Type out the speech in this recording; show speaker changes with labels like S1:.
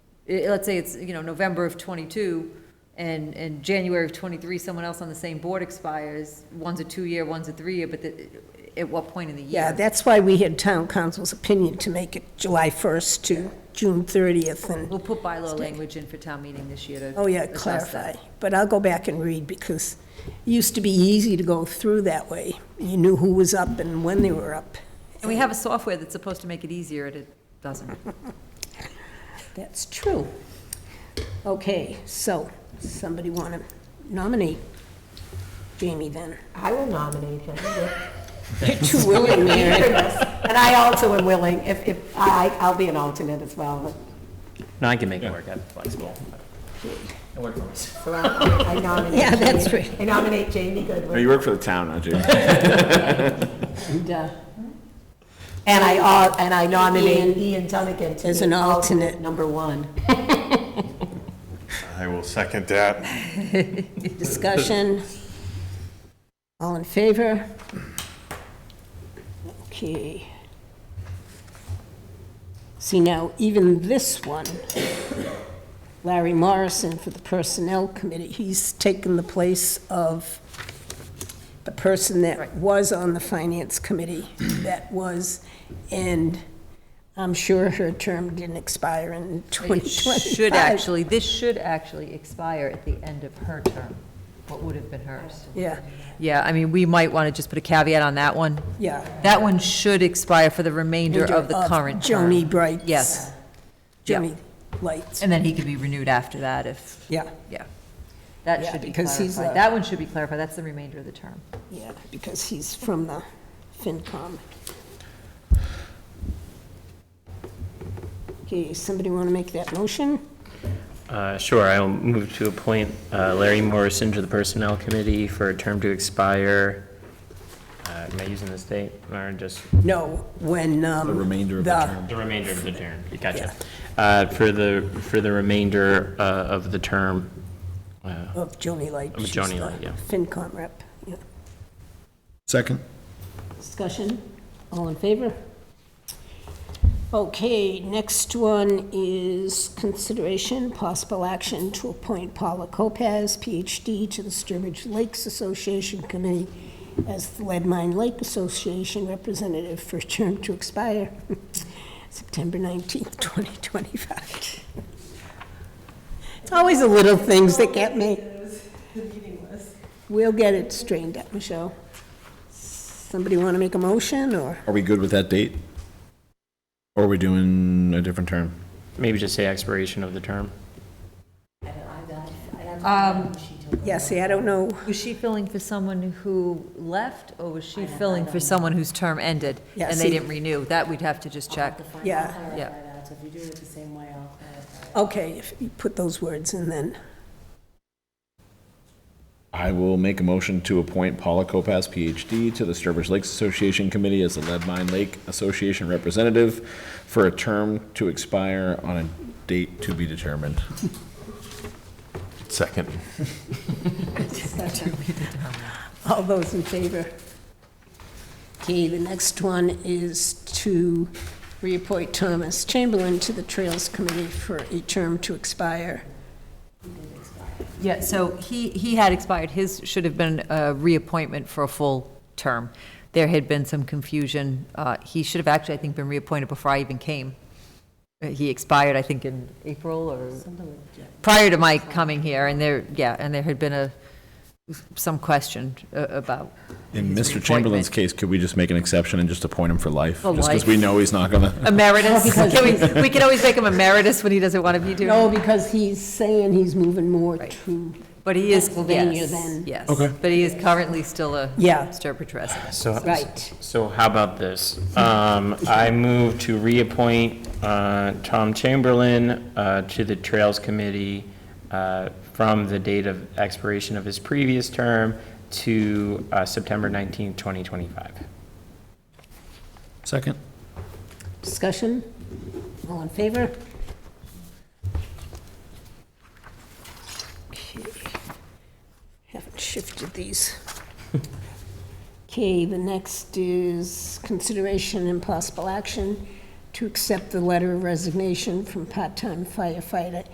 S1: i- let's say it's, you know, November of twenty-two and, and January of twenty-three, someone else on the same board expires, one's a two-year, one's a three-year, but the, at what point in the year?
S2: Yeah, that's why we had town council's opinion to make it July 1st to June 30th and,
S1: We'll put bylaw language in for town meeting this year to.
S2: oh yeah,
S1: adjust that.
S2: clarify. But I'll go back and read because it used to be easy to go through that way. You knew who was up and when they were up.
S1: And we have a software that's supposed to make it easier, and it doesn't.
S2: That's true. Okay, so, somebody want to nominate Jamie then?
S3: I will nominate him.
S2: You're too willing, Mary.
S3: And I also am willing, if, if, I, I'll be an alternate as well.
S4: No, I can make it work, I'm flexible. I work for myself.
S3: So I I nominate.
S2: Yeah, that's
S3: Jamie.
S2: right.
S3: I nominate Jamie Goodwin.
S5: No, you work for the town, don't you?
S2: And, uh,
S3: And I, al- and I nominate Ian Dunnigan to
S2: As
S3: be
S2: an alternate.
S3: number one.
S6: I will second that.
S2: Discussion? All in favor? Okay. See now, even this one, Larry Morrison for the Personnel Committee, he's taken the place of the person that was on the Finance Committee, that was, and I'm sure her term didn't expire in
S1: It
S2: 2025.
S1: should actually, this should actually expire at the end of her term, what would have been hers.
S2: Yeah,
S1: Yeah, I mean, we might want to just put a caveat on that one.
S2: yeah.
S1: That one should expire for the remainder of the current term.
S2: Joni Bright's.
S1: Yes, yeah.
S2: Jimmy Lights,
S1: and then he could be renewed after that if,
S2: yeah,
S1: yeah. That
S2: Yeah,
S1: should be
S2: because he's a-
S1: clarified. That one should be clarified, that's the remainder of the term.
S2: yeah, because he's from the FinCom. Okay, somebody want to make that motion?
S4: Uh, Sure, I will move to appoint uh, Larry Morrison to the Personnel Committee for a term to expire, uh, am I using this date, or just
S2: No, when, um.
S5: The remainder of the term.
S4: the remainder of the term? Gotcha. Uh, For the, for the remainder uh, of the term, uh,
S2: Of Joni Light.
S4: Of
S2: she's
S4: Joni
S2: the
S4: Light, yeah.
S2: FinCom rep, yeah.
S5: Second.
S2: Discussion, all in favor? Okay, next one is consideration, possible action to appoint Paula Copaz, PhD, to the Sturbridge Lakes Association Committee as the Lead Mine Lake Association representative for a term to expire September 19th, 2025. It's always the little things that get me. We'll get it straightened out, Michelle. Somebody want to make a motion, or?
S5: Are we good with that date? Or are we doing a different term?
S4: maybe just say expiration of the term?
S2: Yeah, see, I don't know.
S1: Was she filling for someone who left, or was she filling for someone whose term ended?
S2: Yeah,
S1: And
S2: see-
S1: they didn't renew, that we'd have to just check.
S2: Yeah,
S1: Yeah.
S3: So if you do it the same way, I'll uh,
S2: okay, if you put those words in then.
S5: I will make a motion to appoint Paula Kopass, PhD, to the Sturbridge Lakes Association Committee as the Lead Mine Lake Association representative for a term to expire on a date to be determined.
S6: Second.
S2: All those in favor? Okay, the next one is to reappoint Thomas Chamberlain to the Trails Committee for a term to expire.
S1: Yeah, so he, he had expired, his should have been a reappointment for a full term. There had been some confusion, Uh, he should have actually, I think, been reappointed before I even came. Uh, He expired, I think, in April or, prior to my coming here, and there, yeah, and there had been a, some question uh, about.
S5: In
S1: his
S5: Mr. Chamberlain's
S1: reappointment.
S5: case, could we just make an exception and just appoint him for life?
S1: For
S5: Just because
S1: life.
S5: we know he's not gonna.
S1: Emeritus, Can we, we can always make him emeritus when he doesn't want to be
S2: No,
S1: doing,
S2: because he's saying he's moving more to,
S1: but he is,
S2: Pennsylvania
S1: yes,
S2: then.
S1: yes.
S5: Okay.
S1: But he is currently still a
S2: Yeah.
S1: Sturbridge resident.
S4: So,
S2: right.
S4: So how about this? Um, I move to reappoint uh, Tom Chamberlain uh, to the Trails Committee uh, from the date of expiration of his previous term to uh, September 19th, 2025.
S5: Second.
S2: Discussion? All in favor? Okay. Haven't shifted these. Okay, the next is consideration and possible action to accept the letter of resignation from part-time firefighter